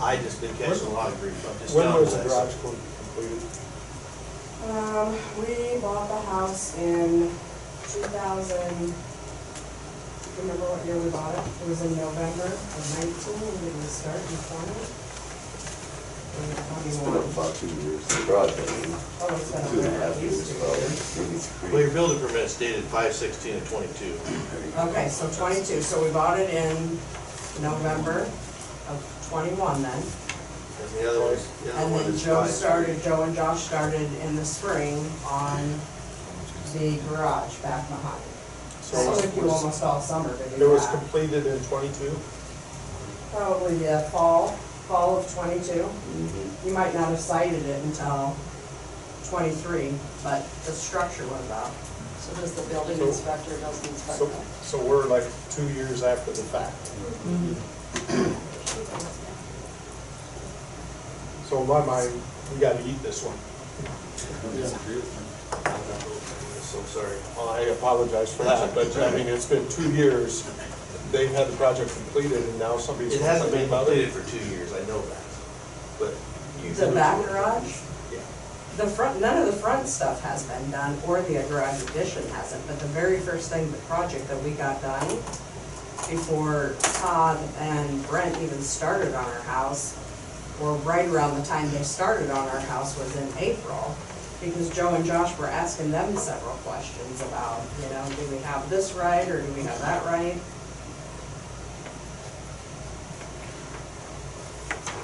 I just been catching a lot of grief, I'm just When telling you was the that. garage completed? Um, we bought the house in two thousand, remember what year we bought it? It was in November of nineteen, and it was starting twenty. And It's been up twenty-one. about two years, the garage, I Oh, it's mean, two been over and a half at years, least two probably, years. maybe Well, three. your building permit is dated five sixteen and twenty-two. Okay, so twenty-two, so we bought it in November of twenty-one then. And the other one's, the other And one then is Joe five- started, Joe and Josh started in the spring on the garage back behind. So So it it was- took you almost all summer to do that. It was completed in twenty-two? Probably, yeah, fall, fall of twenty-two. Mhm. Mm-hmm. You might not have cited it until twenty-three, but the structure was up. So does the building So- inspector, does the inspector? So, so we're like two years after the fact. So in my mind, we gotta eat this one. I'm so sorry. Well, I apologize for that, but I mean, it's been two years, they've had the project completed, and now somebody's It hasn't been complaining about completed it. for two years, I know that, but you. The back garage, Yeah. the front, none of the front stuff has been done, or the garage addition hasn't, but the very first thing, the project that we got done before Todd and Brent even started on our house, or right around the time they started on our house was in April, because Joe and Josh were asking them several questions about, you know, do we have this right, or do we have that right?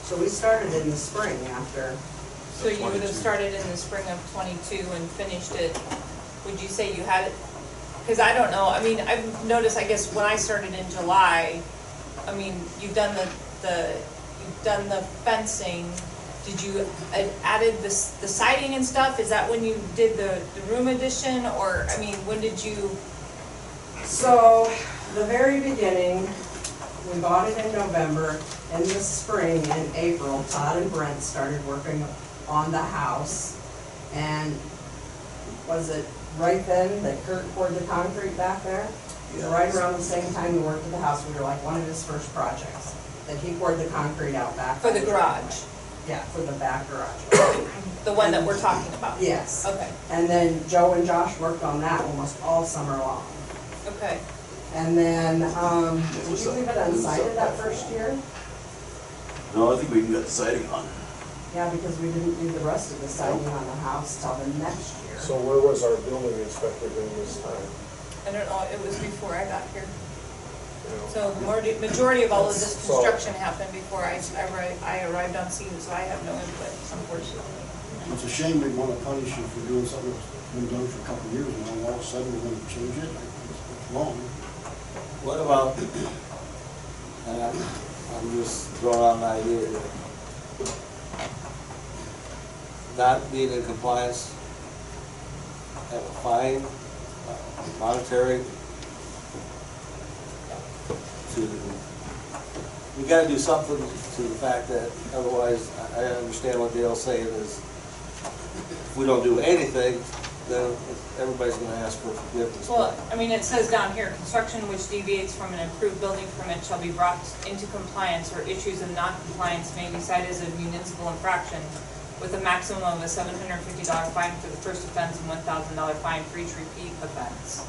So we started in the spring after So you would have started in the spring of twenty-two and finished it, would you say you had it? Because I don't know, I mean, I've noticed, I guess, when I started in July, I mean, you've done the, the, you've done the fencing. Did you uh, added the, s- the siding and stuff? Is that when you did the, the room addition, or, I mean, when did you? So, the very beginning, we bought it in November, in the spring, in April, Todd and Brent started working on the house. And was it right then that Kurt poured the concrete back there? Yeah. Right around the same time we worked at the house, we were like one of his first projects, that he poured the concrete out back. For the garage, Yeah, for the back garage. the one that we're talking about? Yes. Okay, And then Joe and Josh worked on that almost all summer long. okay. And then, um, did you was leave up- it it was unsighted up that by first four. year? No, I think we even got the siding on. Yeah, because we didn't do the rest of the siding on the house till the next year. So where was our building inspector during this time? I don't know, it was before I got here. you know? So the majority- majority of all of this So- construction happened before I, I arri- I arrived on scene, so I have no input, unfortunately. It's a shame they want to punish you for doing something that's been done for a couple of years, and now all of a sudden we're going to change it. It's wrong. What about, and I'm, I'm just throwing out an idea here. Not being in compliance, have a fine, uh, monetary. To, we gotta do something to the fact that otherwise, I, I understand what Dale's saying is, if we don't do anything, then everybody's gonna ask for forgiveness. Well, I mean, it says down here, construction which deviates from an approved building permit shall be brought into compliance or issues of non-compliance may be cited as a municipal infraction with a maximum of a seven hundred and fifty dollar fine for the first offense and one thousand dollar fine for each repeat offense.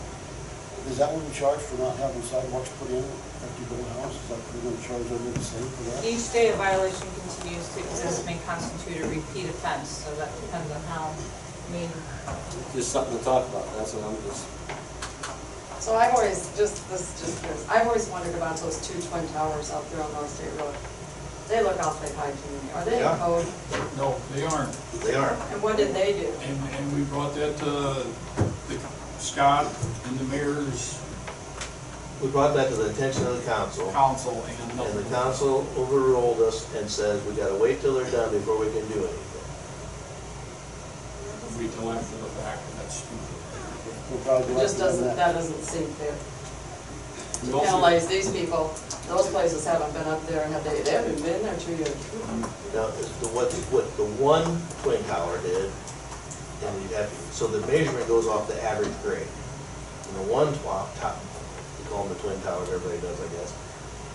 Is that what we charge for not having sidewalks put in after you build a house? Is that what we're going to charge everybody the same for that? Each day a violation continues to exist may constitute a repeat offense, so that depends on how, I mean, Just something to talk about, that's what I'm just. So I've always, just, this, just this, I've always wondered about those two twin towers out there on North State Road. They look awfully high to me. Are they Yeah. in code? No, they aren't, They are. And what did they do? and, and we brought that to the Scott and the mayor's We brought that to the attention of the council, council and and the nothing. council overruled us and says we gotta wait till they're done before we can do anything. We till after the fact, and that's stupid. We'll probably It go just after them doesn't, next. that doesn't seem fair. We To also- penalize these people, those places haven't been up there, have they, they haven't been there two years. Now, is the, what, what the one twin tower did, and you have, so the measurement goes off the average grade. And the one twop, top, we call them the twin towers, everybody does, I guess.